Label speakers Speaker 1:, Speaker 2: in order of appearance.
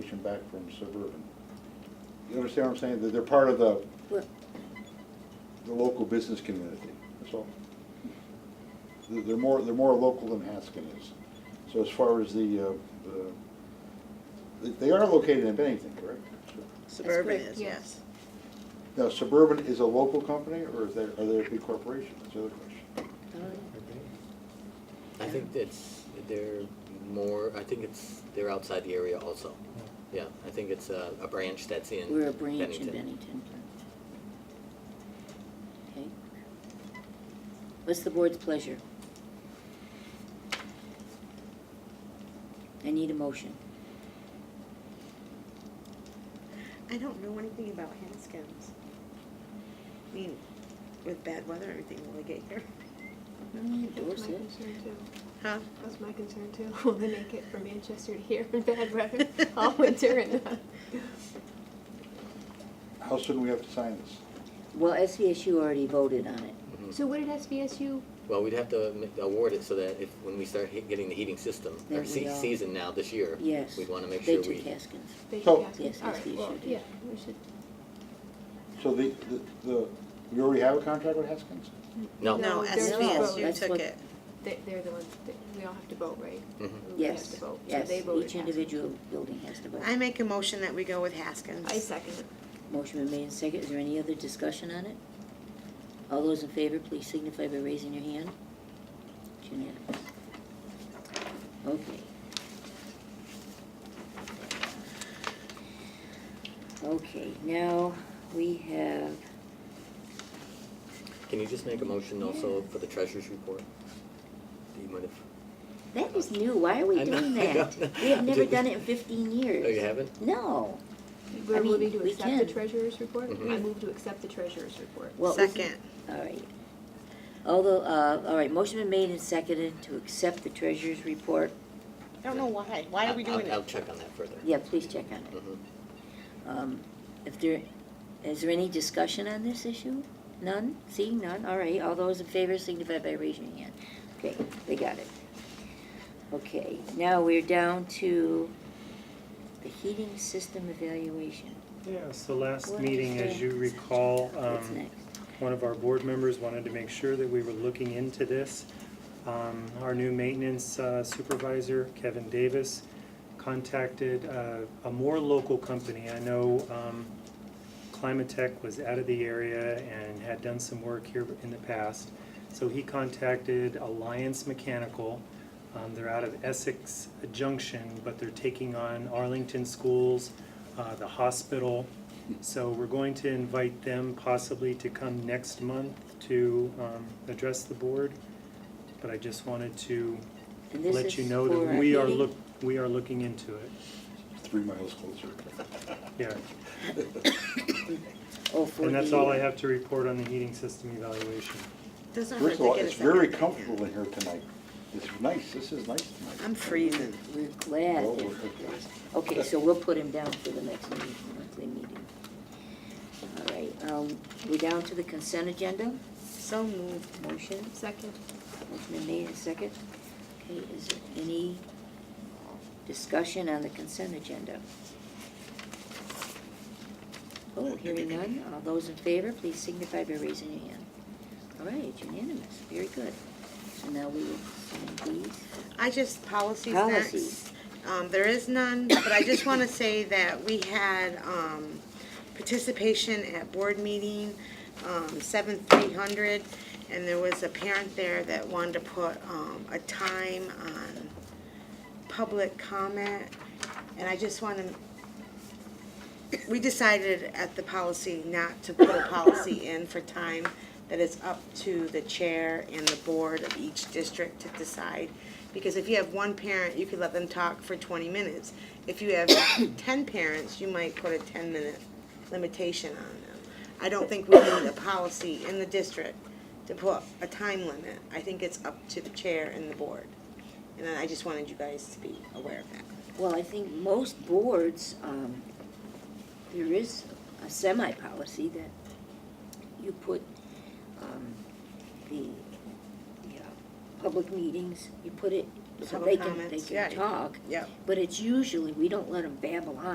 Speaker 1: back from suburban. You understand what I'm saying? That they're part of the,
Speaker 2: Right.
Speaker 1: the local business community, that's all. They're they're more, they're more local than Haskin is. So as far as the, uh, the- they are located in Bennington, correct?
Speaker 2: Suburban
Speaker 3: correct,
Speaker 2: is, yes.
Speaker 3: yes.
Speaker 1: Now Suburban is a local company or is there, are they a big corporation? That's the other question.
Speaker 4: I think it's, they're more, I think it's, they're outside the area also. Yeah, I think it's a, a branch that's in
Speaker 3: We're a branch in
Speaker 4: Bennington.
Speaker 3: Bennington. Okay. What's the board's pleasure? I need a motion.
Speaker 2: I don't know anything about Haskins. I mean, with bad weather, and everything, will they get here?
Speaker 5: That's my
Speaker 3: Dorset.
Speaker 5: concern too.
Speaker 2: Huh?
Speaker 5: That's my concern too. Will they make it from Manchester to here in bad weather all winter and not?
Speaker 1: How soon do we have to sign this?
Speaker 3: Well, SVSU already voted on it.
Speaker 4: Mhm.
Speaker 5: So what did SVSU,
Speaker 4: Well, we'd have to ma- award it so that if, when we start hit- getting the heating system,
Speaker 3: There
Speaker 4: or
Speaker 3: we
Speaker 4: se-
Speaker 3: are.
Speaker 4: season now, this year,
Speaker 3: Yes.
Speaker 4: we'd wanna make sure
Speaker 3: They took
Speaker 4: we,
Speaker 3: Haskins.
Speaker 5: they
Speaker 1: So-
Speaker 5: took Haskins?
Speaker 3: Yes,
Speaker 5: All right,
Speaker 3: SVSU
Speaker 5: well,
Speaker 3: did.
Speaker 5: yeah, we should,
Speaker 1: So the, the- the, we already have a contract with Haskins?
Speaker 2: No,
Speaker 4: no.
Speaker 5: No, there's no vote.
Speaker 2: SVSU
Speaker 3: That's
Speaker 2: took
Speaker 3: what-
Speaker 2: it.
Speaker 5: they, they're the ones, that- we all have to vote, right?
Speaker 4: Mhm.
Speaker 5: We have to
Speaker 3: Yes,
Speaker 5: vote. So
Speaker 3: yes.
Speaker 5: they voted
Speaker 3: Each
Speaker 5: Haskins.
Speaker 3: individual building has to vote.
Speaker 2: I make a motion that we go with Haskins.
Speaker 5: I second it.
Speaker 3: Motion been made and seconded. Is there any other discussion on it? All those in favor, please signify by raising your hand. It's unanimous. Okay. Okay, now we have,
Speaker 4: Can you just make a motion also for the treasurer's report? Do you mind if?
Speaker 3: that is new. Why are we
Speaker 4: I know,
Speaker 3: doing
Speaker 4: I know.
Speaker 3: that? We have never done it in fifteen years.
Speaker 4: Oh, you haven't?
Speaker 3: No. I
Speaker 5: We're
Speaker 3: mean,
Speaker 5: moving to
Speaker 3: we
Speaker 5: accept the
Speaker 3: can.
Speaker 5: treasurer's report?
Speaker 4: Mhm.
Speaker 5: I move to accept the treasurer's report.
Speaker 3: What was it?
Speaker 2: Second.
Speaker 3: All right. Although, uh, all right, motion been made and seconded to accept the treasurer's report.
Speaker 2: I don't know why. Why are we
Speaker 4: I'll-
Speaker 2: doing
Speaker 4: I'll, I'll
Speaker 2: it?
Speaker 4: check on that further.
Speaker 3: Yeah, please check on it.
Speaker 4: Mhm.
Speaker 3: Um, If there, is there any discussion on this issue? None? Seeing none? All right, all those in favor signify by raising your hand. Okay, they got it. Okay, now we're down to the heating system evaluation.
Speaker 6: Yeah, so last
Speaker 3: What
Speaker 6: meeting,
Speaker 3: is
Speaker 6: as you
Speaker 3: the-
Speaker 6: recall,
Speaker 3: What's
Speaker 6: um,
Speaker 3: next?
Speaker 6: one of our board members wanted to make sure that we were looking into this. Um, Our new maintenance uh, supervisor, Kevin Davis, contacted uh, a more local company. I know um, Climatech was out of the area and had done some work here in the past. So he contacted Alliance Mechanical. Um, They're out of Essex Junction, but they're taking on Arlington schools, uh, the hospital. So we're going to invite them possibly to come next month to um, address the board. But I just wanted to
Speaker 3: And this
Speaker 6: let you
Speaker 3: is
Speaker 6: know
Speaker 3: for our
Speaker 6: that we are
Speaker 3: heating?
Speaker 6: look, we are looking into it.
Speaker 1: Three miles closer.
Speaker 6: Yeah,
Speaker 3: Oh, for
Speaker 6: and that's
Speaker 3: the-
Speaker 6: all I have to report on the heating system evaluation.
Speaker 2: Doesn't hurt
Speaker 1: First of
Speaker 2: to
Speaker 1: all,
Speaker 2: get a
Speaker 1: it's very
Speaker 2: second.
Speaker 1: comfortable in here tonight. It's nice, this is nice tonight.
Speaker 2: I'm freezing.
Speaker 3: We're glad.
Speaker 1: Well,
Speaker 3: that-
Speaker 1: we're okay.
Speaker 3: Okay, so we'll put him down for the next meeting, monthly meeting. All right, um, we're down to the consent agenda,
Speaker 2: So moved.
Speaker 3: motion.
Speaker 5: Second.
Speaker 3: Motion been made and second. Okay, is there any discussion on the consent agenda? Oh, hearing none. All those in favor, please signify by raising your hand. All right, unanimous. Very good. So now we will sign these.
Speaker 2: I just, policies
Speaker 3: Policies.
Speaker 2: next. Um, there is none, but I just wanna say that we had, um, participation at board meeting, um, seven three hundred, and there was a parent there that wanted to put, um, a time on public comment, and I just wanna, we decided at the policy not to put a policy in for time that is up to the chair and the board of each district to decide. Because if you have one parent, you could let them talk for twenty minutes. If you have ten parents, you might put a ten-minute limitation on them. I don't think we need a policy in the district to put a time limit. I think it's up to the chair and the board. And I just wanted you guys to be aware of that.
Speaker 3: Well, I think most boards, um, there is a semi-policy that you put, um, the, yeah, public meetings, you put it, so they
Speaker 2: Public
Speaker 3: can, they
Speaker 2: comments,
Speaker 3: can
Speaker 2: yeah.
Speaker 3: talk.
Speaker 2: Yep.
Speaker 3: But it's usually, we don't let them babble on.